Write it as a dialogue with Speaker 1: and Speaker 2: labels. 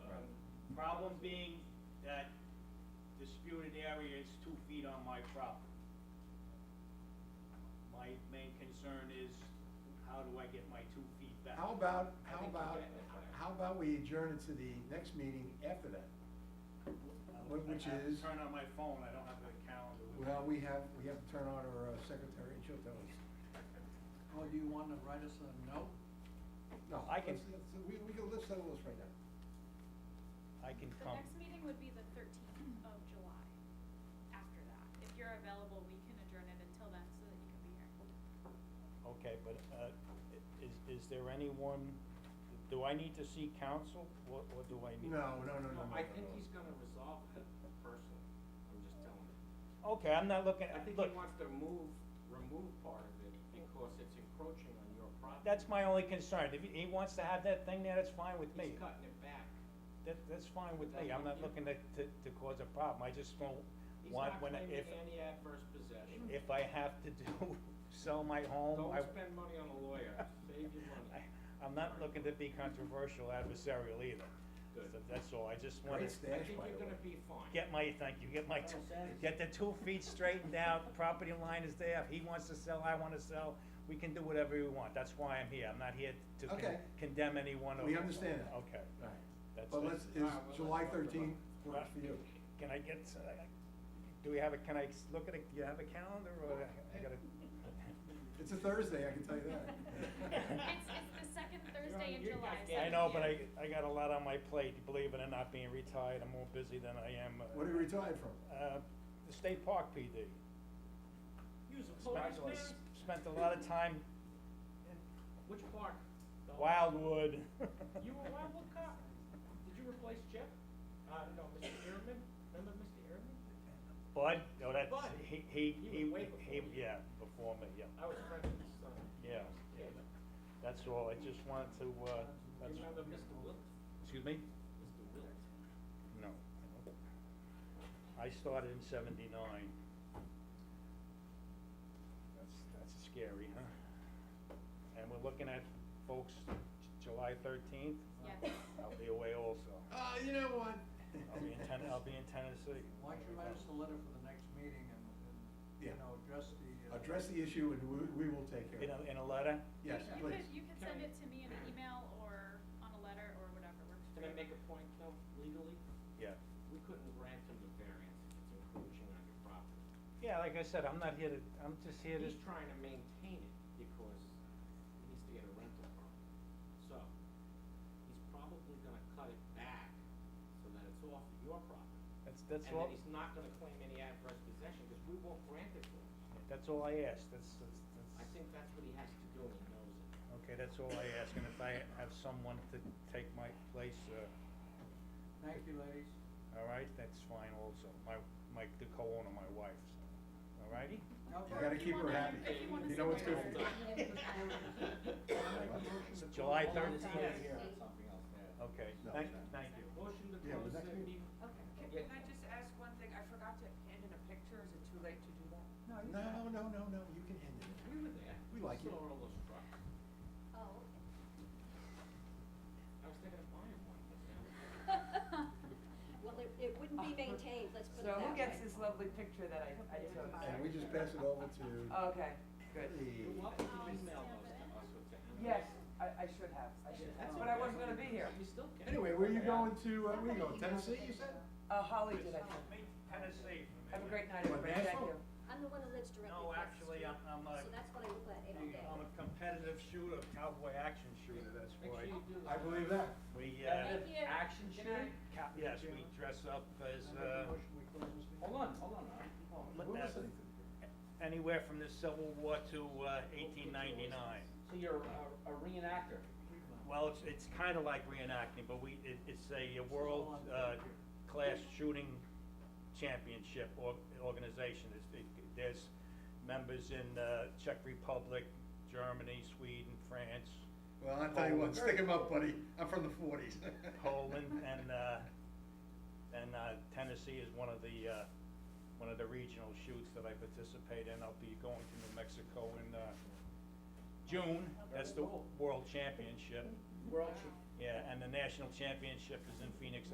Speaker 1: Problem being that disputed area is two feet on my property. My main concern is, how do I get my two feet back?
Speaker 2: How about,
Speaker 3: I
Speaker 2: how
Speaker 3: think we're
Speaker 2: about,
Speaker 3: getting it there.
Speaker 2: how about we adjourn it to the next meeting after that? Wh- which
Speaker 1: I have to
Speaker 2: is-
Speaker 1: Turn on my phone, I don't have a calendar. with me.
Speaker 2: Well, we have, we have to turn on our uh, secretary, and she'll tell us.
Speaker 4: Well, do you want to write us a note?
Speaker 2: No,
Speaker 1: I can-
Speaker 2: let's- let's- We, we can, let's settle this right now.
Speaker 1: I can
Speaker 5: The
Speaker 1: come.
Speaker 5: next meeting would be the thirteenth of July, after that. If you're available, we can adjourn it until then so that you can be here.
Speaker 1: Okay, but uh, i- is, is there anyone, do I need to see counsel? What, what do I need?
Speaker 2: No, no, no, no, no.
Speaker 3: No, I think
Speaker 2: no.
Speaker 3: he's gonna resolve it personally, I'm just telling you.
Speaker 1: Okay, I'm not looking,
Speaker 3: I think he
Speaker 1: look,
Speaker 3: wants to move, remove part of it because it's encroaching on your property.
Speaker 1: that's my only concern. If he he wants to have that thing there, that's fine with me.
Speaker 3: He's cutting it back.
Speaker 1: That, that's fine with
Speaker 3: That
Speaker 1: me, I'm
Speaker 3: one
Speaker 1: not
Speaker 3: you-
Speaker 1: looking to, to, to cause a problem, I just don't
Speaker 3: He's
Speaker 1: want,
Speaker 3: not
Speaker 1: when, I-
Speaker 3: claiming
Speaker 1: if,
Speaker 3: any adverse possession.
Speaker 1: if I have to do, sell my home,
Speaker 3: Don't
Speaker 1: I,
Speaker 3: spend money on a lawyer, save your
Speaker 1: I,
Speaker 3: money.
Speaker 1: I'm not looking to be controversial adversarial either.
Speaker 3: Good.
Speaker 1: So That's all, I just
Speaker 2: Great
Speaker 1: wanna
Speaker 2: stand. Dash,
Speaker 3: I think
Speaker 2: by
Speaker 3: you're
Speaker 2: the
Speaker 3: gonna
Speaker 2: way.
Speaker 3: be fine.
Speaker 1: get my, thank you, get my, two-
Speaker 3: Well said.
Speaker 1: get the two feet straightened out, property line is there, if he wants to sell, I wanna sell, we can do whatever we want, that's why I'm here, I'm not here to con-
Speaker 2: Okay.
Speaker 1: condemn anyone or.
Speaker 2: We understand that.
Speaker 1: Okay.
Speaker 2: All right.
Speaker 1: That's
Speaker 2: But
Speaker 1: it.
Speaker 2: let's,
Speaker 3: All right, well,
Speaker 2: is
Speaker 3: let's
Speaker 2: July
Speaker 3: talk about-
Speaker 2: thirteenth works for you?
Speaker 1: Can I get, uh, do we have a, can I s- look at a, do you have a calendar or I gotta?
Speaker 2: It's a Thursday, I can tell you that.
Speaker 5: It's, it's the second Thursday in
Speaker 3: you're
Speaker 5: July.
Speaker 3: not
Speaker 5: so
Speaker 3: getting-
Speaker 1: I know,
Speaker 5: if
Speaker 1: but I,
Speaker 5: you-
Speaker 1: I got a lot on my plate, believe it or not, being retired, I'm more busy than I am. uh,
Speaker 2: What are you retired from?
Speaker 1: Uh, the State Park PD.
Speaker 3: Use a
Speaker 1: Spent-
Speaker 3: polarized man.
Speaker 1: Spent a lot of time
Speaker 3: Which park? The-
Speaker 1: Wildwood.
Speaker 3: You were Wildwood cop. Did you replace Chip? Uh, no, Mr. Ehrman? Remember Mr. Ehrman?
Speaker 1: Bud, no, that's,
Speaker 3: Bud.
Speaker 1: he, he,
Speaker 3: You were
Speaker 1: he,
Speaker 3: way before
Speaker 1: he,
Speaker 3: me.
Speaker 1: yeah, before me, yeah,
Speaker 3: I was friends with his son.
Speaker 1: yeah.
Speaker 3: Yeah.
Speaker 1: That's all, I just wanted to, uh,
Speaker 3: You
Speaker 1: that's,
Speaker 3: Remember Mr. Wilt?
Speaker 1: excuse me?
Speaker 3: Mr. Wilt.
Speaker 1: No. I don't. I started in seventy-nine. That's, that's scary, huh? And we're looking at, folks, J- July thirteenth,
Speaker 5: Yes.
Speaker 1: I'll be away also.
Speaker 2: Uh, you know what?
Speaker 1: I'll be in Ten, I'll be in Tennessee.
Speaker 4: Why don't you write us a letter for the next meeting and, and,
Speaker 2: Yeah.
Speaker 4: you know, address the. uh,
Speaker 2: Address the issue and we, we will take
Speaker 1: In a,
Speaker 2: care of
Speaker 1: in
Speaker 2: it.
Speaker 1: a letter?
Speaker 2: Yes,
Speaker 5: You
Speaker 2: please.
Speaker 5: could, you could send it to me in an email or on a letter or whatever works for
Speaker 3: Can
Speaker 5: you.
Speaker 3: I make a point though, legally?
Speaker 1: Yeah.
Speaker 3: We couldn't grant him the variance if it's encroaching on your property.
Speaker 1: Yeah, like I said, I'm not here to, I'm just here to,
Speaker 3: He's trying to maintain it because he needs to get a rental property. So, he's probably gonna cut it back so that it's off of your property.
Speaker 1: that's, that's
Speaker 3: And
Speaker 1: all,
Speaker 3: that he's not gonna claim any adverse possession, because we won't grant it to him.
Speaker 1: that's all I ask, that's, that's.
Speaker 3: I think that's what he has to do, and he knows it.
Speaker 1: Okay, that's all I ask, and if I have someone to take my place, uh,
Speaker 4: Thank you, ladies.
Speaker 1: All right, that's fine also. My, my, the co-owner, my wife, so, all righty?
Speaker 4: No,
Speaker 2: You gotta
Speaker 4: but-
Speaker 2: keep her happy.
Speaker 5: If you wanna
Speaker 2: You know what's good for you.
Speaker 5: send a letter.
Speaker 4: I'll make a motion to put
Speaker 1: July
Speaker 4: all on the
Speaker 1: 13th.
Speaker 4: calendar here on something else, yeah.
Speaker 1: Okay,
Speaker 2: No,
Speaker 1: thank,
Speaker 2: no.
Speaker 1: thank you.
Speaker 3: Motion to
Speaker 2: Yeah,
Speaker 3: close
Speaker 2: was
Speaker 3: the
Speaker 2: that good?
Speaker 3: meeting. Yeah.
Speaker 6: Okay, can, can I just ask one thing? I forgot to hand in a picture. Is it too late to do that?
Speaker 4: No, you
Speaker 2: No,
Speaker 4: can't.
Speaker 2: no, no, no, you can end it.
Speaker 3: We were there.
Speaker 2: We like
Speaker 3: Saw
Speaker 2: it.
Speaker 3: all those trucks.
Speaker 7: Oh,
Speaker 3: I was thinking of buying one, but now.
Speaker 7: Well, it, it wouldn't be maintained, let's put it
Speaker 6: So
Speaker 7: that way.
Speaker 6: who gets this lovely picture that I, I took?
Speaker 2: And we just pass it over to
Speaker 6: Okay, Oh, good.
Speaker 3: You're
Speaker 2: the,
Speaker 3: welcome
Speaker 5: I'll
Speaker 3: to email
Speaker 5: Oh, stamp it in.
Speaker 3: those to us or to Anna.
Speaker 6: Yes, I, I should have, I should have, but I wasn't gonna be here.
Speaker 3: You still can.
Speaker 2: anyway, where are you going to, uh, where are you going, Tennessee, you said?
Speaker 6: Uh, Holly did, I think.
Speaker 1: Tennessee.
Speaker 6: Have a great night,
Speaker 2: What,
Speaker 6: everybody, thank
Speaker 2: Nashville?
Speaker 6: you.
Speaker 7: I'm the one who lives directly
Speaker 1: No,
Speaker 7: across the
Speaker 1: actually,
Speaker 7: street.
Speaker 1: I'm, I'm
Speaker 7: So
Speaker 1: a,
Speaker 7: that's what I look at every day.
Speaker 1: I'm a competitive shooter, cowboy action shooter, that's
Speaker 3: Make sure
Speaker 1: why.
Speaker 3: you do this.
Speaker 2: I believe that.
Speaker 1: We, uh,
Speaker 5: Thank you.
Speaker 3: Action
Speaker 4: Good
Speaker 3: shooting?
Speaker 4: night.
Speaker 1: ca- yes, we dress up as, uh,
Speaker 4: I make a motion, we close this meeting.
Speaker 3: Hold on, hold on, all right. Hold on.
Speaker 2: We're listening to
Speaker 1: anywhere from the Civil War to, uh, eighteen ninety-nine.
Speaker 3: So you're a a reenactor?
Speaker 1: Well, it's, it's kind of like reenacting, but we, it, it's a world, uh, class shooting championship or, organization. It's- it- There's members in, uh, Czech Republic, Germany, Sweden, France,
Speaker 2: Well, I'll tell you what, stick 'em up, buddy, I'm from the forties.
Speaker 1: Poland, and, uh, and, uh, Tennessee is one of the, uh, one of the regional shoots that I participate in. I'll be going to New Mexico in, uh, June. That's the world championship.
Speaker 3: We're all shooting.
Speaker 1: Yeah, and the national championship is in Phoenix,